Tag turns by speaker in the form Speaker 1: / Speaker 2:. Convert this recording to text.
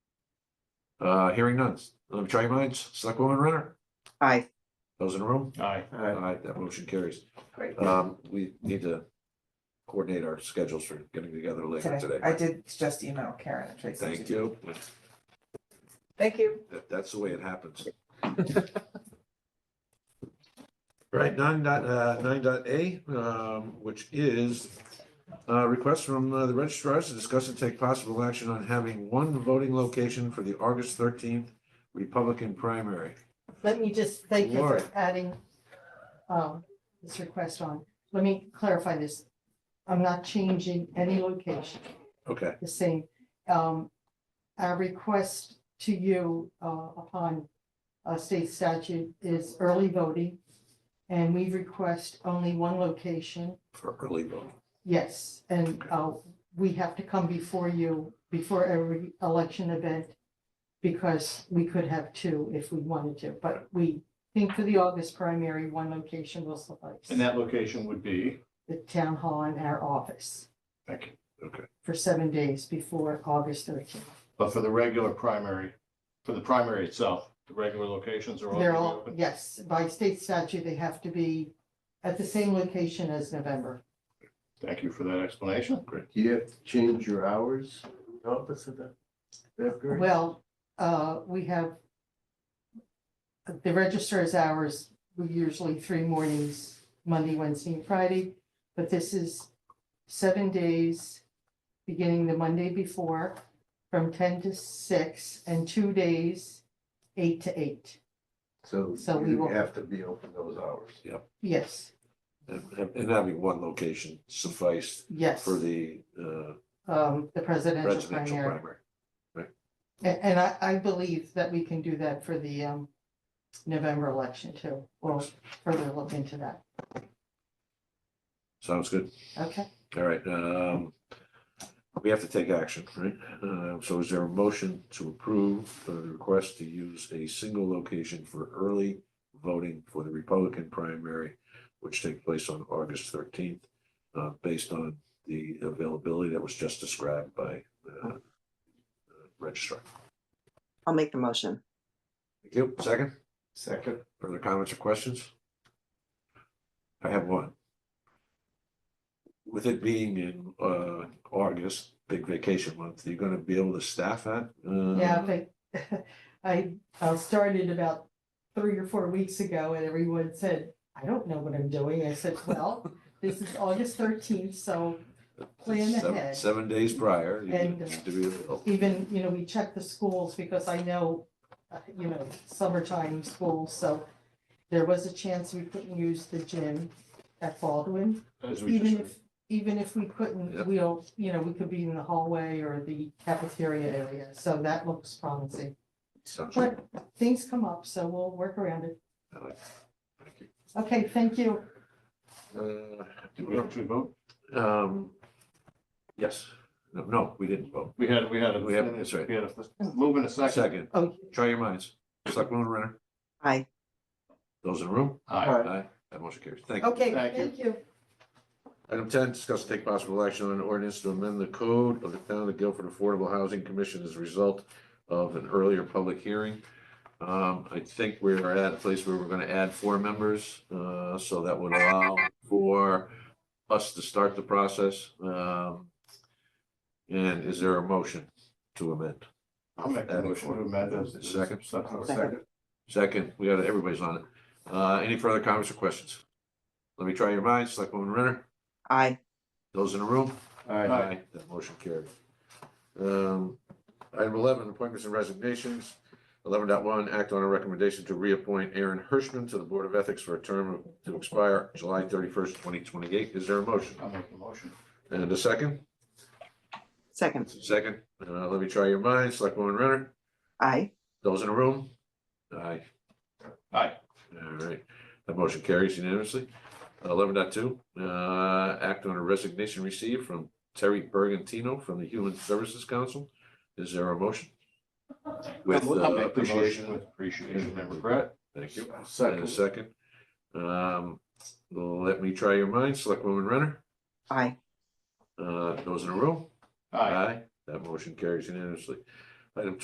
Speaker 1: Uh, hearing none. Let me try your minds. Selectwoman Renner,
Speaker 2: Aye.
Speaker 1: those in the room?
Speaker 3: Aye.
Speaker 1: Aye, that motion carries.
Speaker 2: Great.
Speaker 1: Um, we need to coordinate our schedules for getting together later
Speaker 4: today.
Speaker 1: today.
Speaker 4: I did just email Karen and Tracy.
Speaker 1: Thank you.
Speaker 2: Thank you.
Speaker 1: That, that's the way it happens. Right, nine dot, uh, nine dot A, um, which is uh, request from uh, the registrars to discuss and take possible action on having one voting location for the August thirteenth Republican primary.
Speaker 5: Let me just thank you for
Speaker 1: Laura.
Speaker 5: adding um, this request on. Let me clarify this. I'm not changing any location,
Speaker 1: Okay,
Speaker 5: the same. Um, Our request to you uh, upon uh, state statute is early voting. And we request only one location,
Speaker 1: for early voting.
Speaker 5: yes. And uh, we have to come before you, before every election event, because we could have two if we wanted to, but we think for the August primary, one location will
Speaker 3: And
Speaker 5: suffice.
Speaker 3: that location would be,
Speaker 5: The town hall and our office
Speaker 3: thank you.
Speaker 5: for seven days before August thirteenth.
Speaker 3: But for the regular primary, for the primary itself, the regular locations are all.
Speaker 5: They're
Speaker 3: gonna be
Speaker 5: all,
Speaker 3: open?
Speaker 5: yes, by state statute, they have to be at the same location as November.
Speaker 3: Thank you for that explanation. Great.
Speaker 6: Do you have to change your hours? in Office of that? After?
Speaker 5: Well, uh, we have the registrar's hours, were usually three mornings, Monday, Wednesday, and Friday. But this is seven days, beginning the Monday before, from ten to six, and two days, eight to eight.
Speaker 6: So
Speaker 5: So we
Speaker 6: you
Speaker 5: will-
Speaker 6: have to be open those hours.
Speaker 5: Yes,
Speaker 1: And, and- and having one location sufficed
Speaker 5: yes,
Speaker 1: for the uh,
Speaker 5: um, the presidential
Speaker 1: presidential
Speaker 5: primary.
Speaker 1: primary.
Speaker 5: And, and I, I believe that we can do that for the, um, November election too. We'll further look into that.
Speaker 1: Sounds good.
Speaker 5: Okay,
Speaker 1: All right, um, we have to take action, right? Uh, so is there a motion to approve the request to use a single location for early voting for the Republican primary, which takes place on August thirteenth, uh, based on the availability that was just described by, uh, uh, registrar?
Speaker 2: I'll make the motion.
Speaker 1: Thank you. Second,
Speaker 6: Second,
Speaker 1: further comments or questions? I have one. With it being in uh August, big vacation month, you're gonna be able to staff that? uh,
Speaker 5: yeah, but I, I started about three or four weeks ago and everyone said, I don't know what I'm doing. I said, well, this is August thirteenth, so plan
Speaker 1: seven-
Speaker 5: ahead.
Speaker 1: Seven days prior, you're
Speaker 5: And,
Speaker 1: gonna
Speaker 5: uh,
Speaker 1: have to be available.
Speaker 5: even, you know, we check the schools because I know, uh, you know, summertime schools, so there was a chance we couldn't use the gym at Baldwin.
Speaker 3: As we
Speaker 5: Even if,
Speaker 3: just,
Speaker 5: even if we couldn't,
Speaker 1: Yep.
Speaker 5: we'll, you know, we could be in the hallway or the cafeteria area, so that looks promising.
Speaker 1: Sounds
Speaker 5: But
Speaker 1: good.
Speaker 5: things come up, so we'll work around it.
Speaker 1: I like it. Thank you.
Speaker 5: Okay, thank you.
Speaker 1: Uh,
Speaker 3: did we actually vote?
Speaker 1: Um, yes, no, no, we didn't vote.
Speaker 3: We had, we had. a-
Speaker 1: We have- that's right.
Speaker 3: We had a move in a second.
Speaker 1: Second,
Speaker 5: Oh,
Speaker 1: try your minds. Selectwoman Renner,
Speaker 2: Aye.
Speaker 1: those in the room?
Speaker 3: Aye.
Speaker 1: Aye. That motion carries. Thank you.
Speaker 5: okay,
Speaker 3: Thank you.
Speaker 5: thank you.
Speaker 1: Item ten, discuss and take possible action on an ordinance to amend the code of the town of Guilford Affordable Housing Commission as a result of an earlier public hearing. Um, I think we are at a place where we're gonna add four members, uh, so that would allow for us to start the process. Um, and is there a motion to amend?
Speaker 3: I'll make the motion to amend this.
Speaker 1: Second.
Speaker 3: Second.
Speaker 1: Second, we got, everybody's on it. Uh, any further comments or questions? Let me try your minds, Selectwoman Renner,
Speaker 2: Aye.
Speaker 1: those in the room?
Speaker 6: I,
Speaker 3: Aye.
Speaker 1: Aye, that motion carried. Um, item eleven, appointments and resignations. Eleven point one, act on a recommendation to reappoint Aaron Hirschman to the Board of Ethics for a term of- to expire July thirty-first, twenty twenty-eight. Is there a motion?
Speaker 3: I'll make the motion.
Speaker 1: And a second?
Speaker 2: Second.
Speaker 1: Second, uh, let me try your minds. Selectwoman Renner,
Speaker 2: Aye.
Speaker 1: those in the room? Aye.
Speaker 3: Aye.
Speaker 1: All right, that motion carries unanimously. Eleven point two, uh, act on a resignation received from Terry Bergantino from the Human Services Council. Is there a motion? With
Speaker 3: I'll
Speaker 1: uh,
Speaker 3: make the motion
Speaker 1: appreciation,
Speaker 3: With appreciation and regret.
Speaker 1: thank you. And a
Speaker 6: second,
Speaker 1: second. Um, let me try your minds, Selectwoman Renner,
Speaker 2: Aye.
Speaker 1: uh, those in a row?
Speaker 3: Aye.
Speaker 1: That motion carries unanimously. Item